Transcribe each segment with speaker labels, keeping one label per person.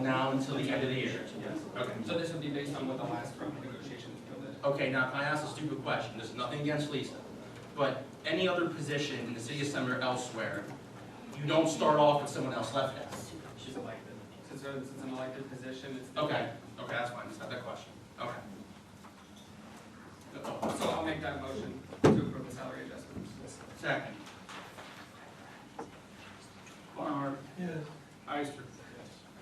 Speaker 1: now until the end of the year?
Speaker 2: Yes.
Speaker 1: Okay.
Speaker 2: So this would be based on what the last round of negotiations yielded.
Speaker 1: Okay, now, I asked a stupid question, there's nothing against Lisa, but any other position in the city of Sumner elsewhere, you don't start off with someone else left at?
Speaker 2: She's elected. Since it's it's an elected position, it's.
Speaker 1: Okay, okay, that's fine, just had that question, okay. Uh-oh.
Speaker 2: So I'll make that motion to approve the salary adjustments.
Speaker 1: Second.
Speaker 3: Barnhart.
Speaker 4: yes,
Speaker 3: Ister.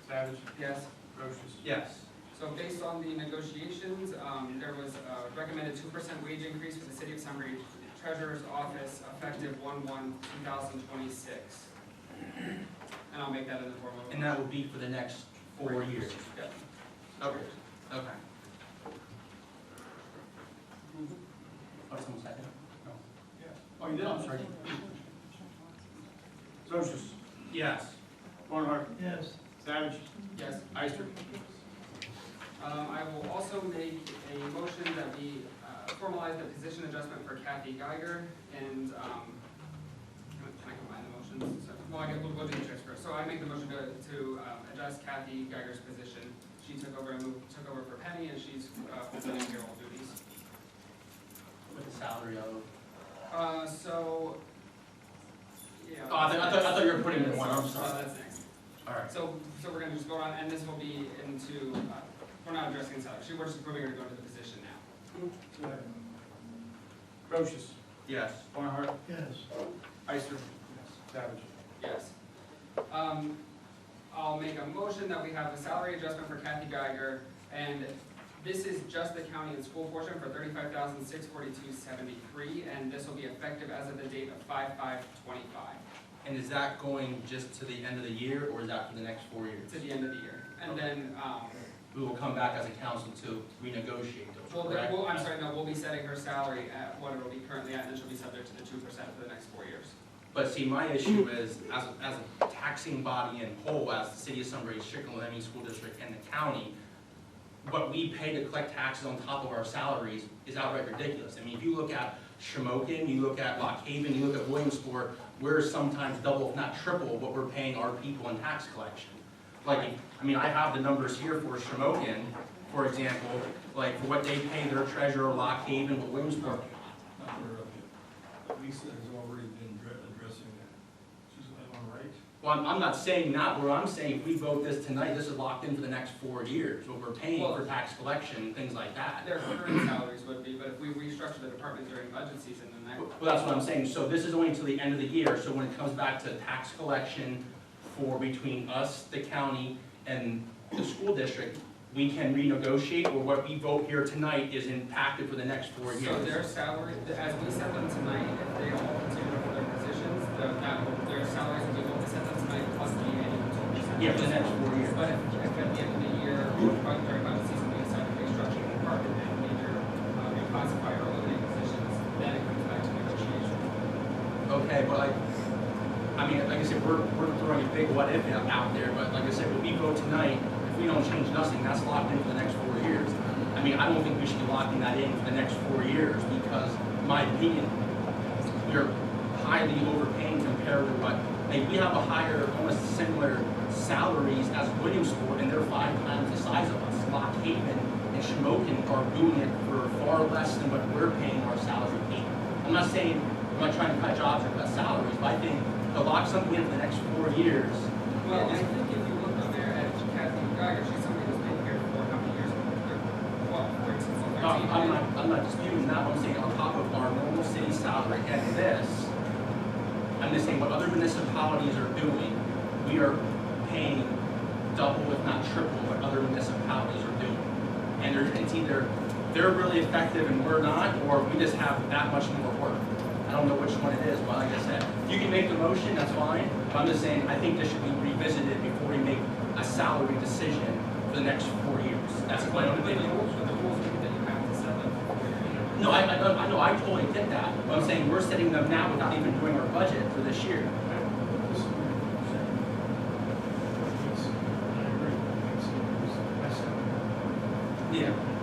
Speaker 3: Savage.
Speaker 2: Yes.
Speaker 3: Procius.
Speaker 1: Yes.
Speaker 2: So based on the negotiations, um, there was a recommended two percent wage increase for the city of Sunbury treasurer's office effective one one two thousand twenty-six. And I'll make that in the form of.
Speaker 1: And that will be for the next four years?
Speaker 2: Yep.
Speaker 1: Okay, okay. Oh, someone second?
Speaker 3: Oh, you did, I'm sorry. Procius.
Speaker 1: Yes.
Speaker 3: Barnhart.
Speaker 4: yes,
Speaker 3: Savage.
Speaker 2: Yes.
Speaker 3: Ister.
Speaker 2: Um, I will also make a motion that we uh, formalize the position adjustment for Kathy Geiger and, um, can I- can I combine the motions? So- Well, I guess we'll go do the checks first. So I make the motion to, to um, adjust Kathy Geiger's position. She took over, moved- took over for Penny and she's uh, fulfilling payroll duties.
Speaker 1: With the salary of?
Speaker 2: Uh, so, yeah.
Speaker 1: Oh, I thought- I thought- I thought you were putting in one, I'm
Speaker 2: Uh,
Speaker 1: sorry.
Speaker 2: That's next.
Speaker 1: All right.
Speaker 2: So, so we're gonna just vote on, and this will be into, uh, we're not addressing salary. She, we're just approving her to go to the position now.
Speaker 3: Procius.
Speaker 1: Yes.
Speaker 3: Barnhart.
Speaker 4: yes.
Speaker 3: Ister. Savage.
Speaker 2: Yes. Um, I'll make a motion that we have a salary adjustment for Kathy Geiger, and this is just the county and school portion for thirty-five thousand, six forty-two, seventy-three, and this will be effective as of the date of five-five, twenty-five,
Speaker 1: And is that going just to the end of the year, or is that for the next four years?
Speaker 2: to the end of the year. And then, um,
Speaker 1: We will come back as a council to renegotiate
Speaker 2: well,
Speaker 1: those,
Speaker 2: then,
Speaker 1: correct?
Speaker 2: well, I'm sorry, no, we'll be setting her salary at what it'll be currently at, and she'll be subject to the two percent for the next four years.
Speaker 1: But see, my issue is, as, a- as a taxing body in whole, as the city of Sunbury, Strickland, Lemming School District, and the county, what we pay to collect taxes on top of our salaries is outright ridiculous. I mean, if you look at Shamokin, you look at Lock Haven, you look at Williamsport, we're sometimes double, if not triple, what we're paying our people in tax collection. Like, I mean, I have the numbers here for Shamokin, for example, like, for what they pay their treasurer, Lock Haven, what Williamsport
Speaker 5: Not aware of yet. Lisa has already been dre- addressing that. She's, am I right?
Speaker 1: Well, I'm, I'm not saying not, where I'm saying if we vote this tonight, this is locked in for the next four years, what we're paying for tax collection, things like that.
Speaker 2: Their current salaries would be, but if we restructure the department during budget season, then that
Speaker 1: Well, that's what I'm saying, so this is only until the end of the year, so when it comes back to tax collection for between us, the county, and the school district, we can renegotiate, or what we vote here tonight is impacted for the next four
Speaker 2: So their
Speaker 1: years.
Speaker 2: salary, as we set them tonight, if they all continue for their positions, the- that, will- their salaries will be what we set them tonight plus the annual two percent.
Speaker 1: Yeah, for the next four years.
Speaker 2: But if, if at the end of the year, or probably during budget season, we decide to restructure the department and either uh, reclassify or eliminate positions, then it comes back to negotiation.
Speaker 1: Okay, but like, I mean, like I said, we're, we're throwing a big what if out there, but like I said, when we vote tonight, if we don't change nothing, that's locked in for the next four years. I mean, I don't think we should be locking that in for the next four years because, in my opinion, we're highly overpaying compared to what, like, we have a higher, almost similar salaries as Williamsport, and they're five times the size of us. Lock Haven and Shamokin are doing it for far less than what we're paying our salary people. I'm not saying, I'm not trying to cut jobs or cut salaries, but I think to lock something in for the next four years
Speaker 2: Well, I think if you look over there at Kathy Geiger, she's somebody who's been here for how many years? Well, fourteen,
Speaker 1: No,
Speaker 2: thirteen.
Speaker 1: I'm not, I'm not disputing that, I'm saying on top of our normal city salary and this, I'm just saying what other municipalities are doing, we are paying double if not triple what other municipalities are doing. And there's, it's either they're really effective and we're not, or we just have that much more work. I don't know which one it is, but like I said, you can make the motion, that's fine, but I'm just saying, I think this should be revisited before we make a salary decision for the next four years. That's my own
Speaker 2: But the
Speaker 1: opinion.
Speaker 2: rules, but the rules mean that you have to set them for your year.
Speaker 1: No, I, I, I know, I totally get that, but I'm saying we're setting them now without even doing our budget for this year.
Speaker 5: This is what you're saying. Yes, I agree. That's- that's-
Speaker 1: Yeah.